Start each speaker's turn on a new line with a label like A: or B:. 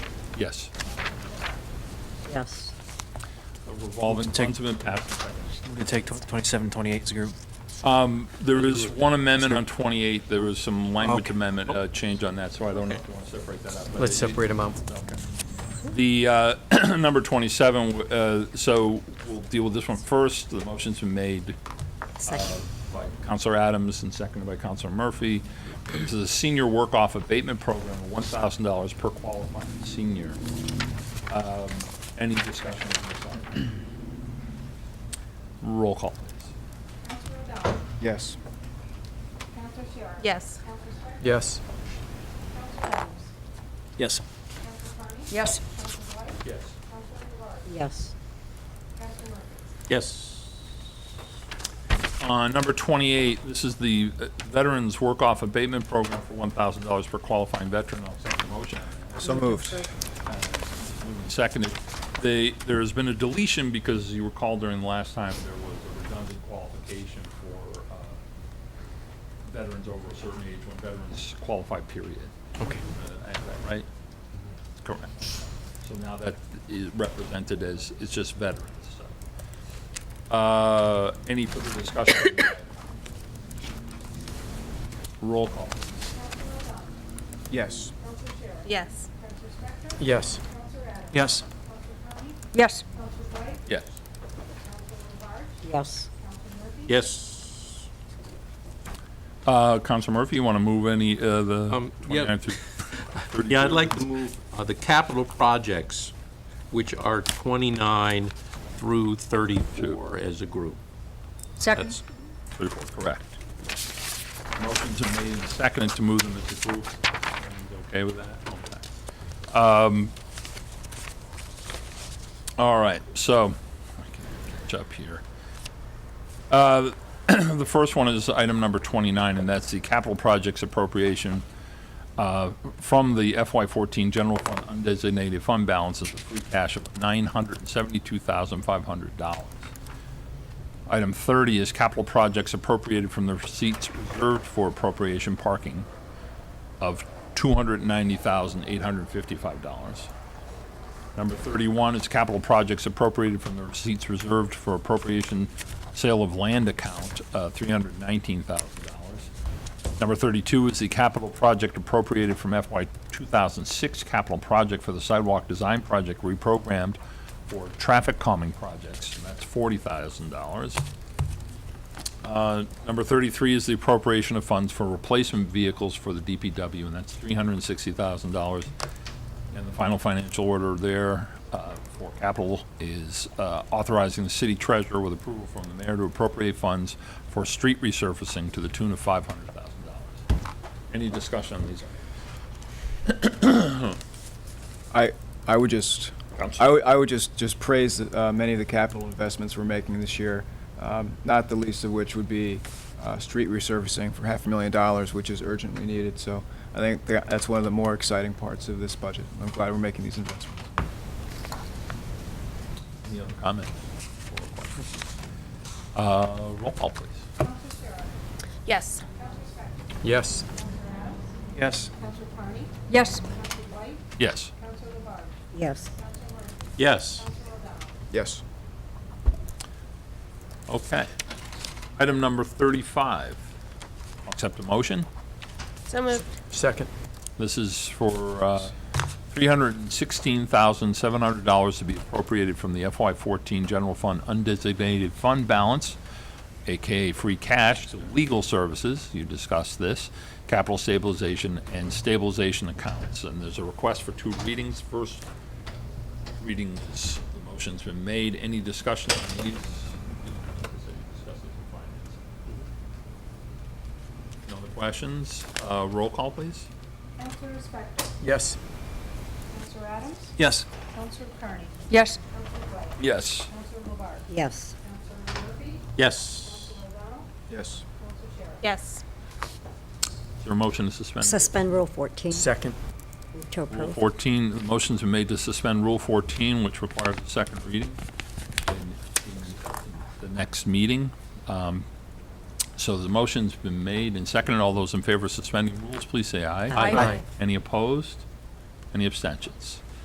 A: Yes.
B: Yes.
A: A Revolving
C: Take-
A: funds have been passed.
C: We could take tw- 27, 28 as a group.
A: There is one amendment on 28, there was some language
C: Okay.
A: amendment, uh, change on that, so I don't know if you want to separate that out. but
D: Oh. Let's
A: it-
D: separate them out.
A: The uh, number 27, uh, so we'll deal with this one first. The motion's been made uh,
B: Second.
A: by Counselor Adams and seconded by Counselor Murphy. This is a senior work-off abatement program, of $1,000 per qualifying senior. Um, Any discussion on this item? Roll call, please.
E: Counselor O'Donnell.
F: Yes.
E: Counselor Shara.
B: Yes.
E: Counselor Swift.
D: Yes.
E: Counselor Adams.
C: Yes.
E: Counselor Carney.
B: Yes.
E: Counselor Dwight.
A: Yes.
E: Counselor Garrard.
B: Yes.
E: Counselor Murphy.
C: Yes.
A: Uh, Number 28, this is the uh, Veterans Work-Off Abatement Program for $1,000 per qualifying veteran. I'll second the motion.
F: So moved.
A: Seconded. They, there has been a deletion because you recall during the last time, there was a redundant qualification for uh, veterans over a certain age when veterans qualify, period.
D: Okay.
A: Uh, I have that Right? Correct. So now that is represented as, it's just veterans, so. Uh, Any further discussion? Roll call.
E: Counselor O'Donnell.
F: Yes.
E: Counselor Shara.
B: Yes.
E: Counselor Spector.
D: Yes.
E: Counselor Adams.
C: Yes.
E: Counselor Carney.
B: Yes.
E: Counselor Dwight.
A: Yes.
B: Yes.
E: Counselor Garrard. Counselor Murphy.
C: Yes.
A: Uh, Counselor Murphy, you want to move any, uh, the
G: Um, yeah.
A: 29 through
G: Yeah, I'd like to move uh, the capital projects, which are 29 through 34 as a group.
B: Second.
G: That's,
A: 34, correct. Motion's been made and seconded to move them as a group. Everyone's Okay with that? Okay. Um, All right, so, I can catch up here. Uh, The first one is item number 29, and that's the capital projects appropriation uh, from the FY14 general fund undesignated fund balances of free cash of $972,500. Item 30 is capital projects appropriated from the receipts reserved for appropriation parking of $290,855. Number 31 is capital projects appropriated from the receipts reserved for appropriation sale of land account, uh, $319,000. Number 32 is the capital project appropriated from FY 2006 capital project for the sidewalk design project reprogrammed for traffic calming projects, and that's $40,000. Uh, Number 33 is the appropriation of funds for replacement vehicles for the DPW, and that's $360,000. And the final financial order there uh, for capital is uh, authorizing the city treasurer with approval from the mayor to appropriate funds for street resurfacing to the tune of $500,000. Any discussion on these?
F: I, I would just, I would, I would just, just praise uh, many of the capital investments we're making this year, um, not the least of which would be uh, street resurfacing for half a million dollars, which is urgently needed. So I think tha- that's one of the more exciting parts of this budget. I'm glad we're making these investments.
A: Any other comments? Uh, Roll call, please.
E: Counselor Shara.
B: Yes.
E: Counselor Spector.
D: Yes.
E: Counselor Adams.
C: Yes.
E: Counselor Carney.
B: Yes.
E: Counselor Dwight.
A: Yes.
E: Counselor Garrard.
B: Yes.
E: Counselor Murphy.
G: yes.
E: Counselor O'Donnell.
F: Yes.
A: Okay. Item number 35. I'll Accept a motion.
B: So moved.
D: Second.
A: This is for uh, $316,700 to be appropriated from the FY14 General Fund Undesignated Fund Balance, AKA free cash, to legal services, you discussed this, capital stabilization and stabilization accounts. And there's a request for two readings. First reading, is- the motion's been made. Any discussion on these? No other questions? Uh, Roll call, please.
E: Counselor Spector.
D: Yes.
E: Counselor Adams.
C: Yes.
E: Counselor Carney.
B: Yes.
E: Counselor Dwight.
A: Yes.
E: Counselor LeBarge.
B: Yes.
E: Counselor Murphy.
G: Yes.
E: Counselor O'Donnell.
F: Yes.
E: Counselor Shara.
B: Yes.
A: Is there a motion to suspend?
H: Suspend Rule 14
D: Second.
H: to
A: Rule
H: approve.
A: 14, the motions are made to suspend Rule 14, which requires a second reading in- in the next meeting. Um, So the motion's been made and seconded. All those in favor of suspending rules, please say aye.
B: Aye. Aye.
A: Any opposed? Any abstentions?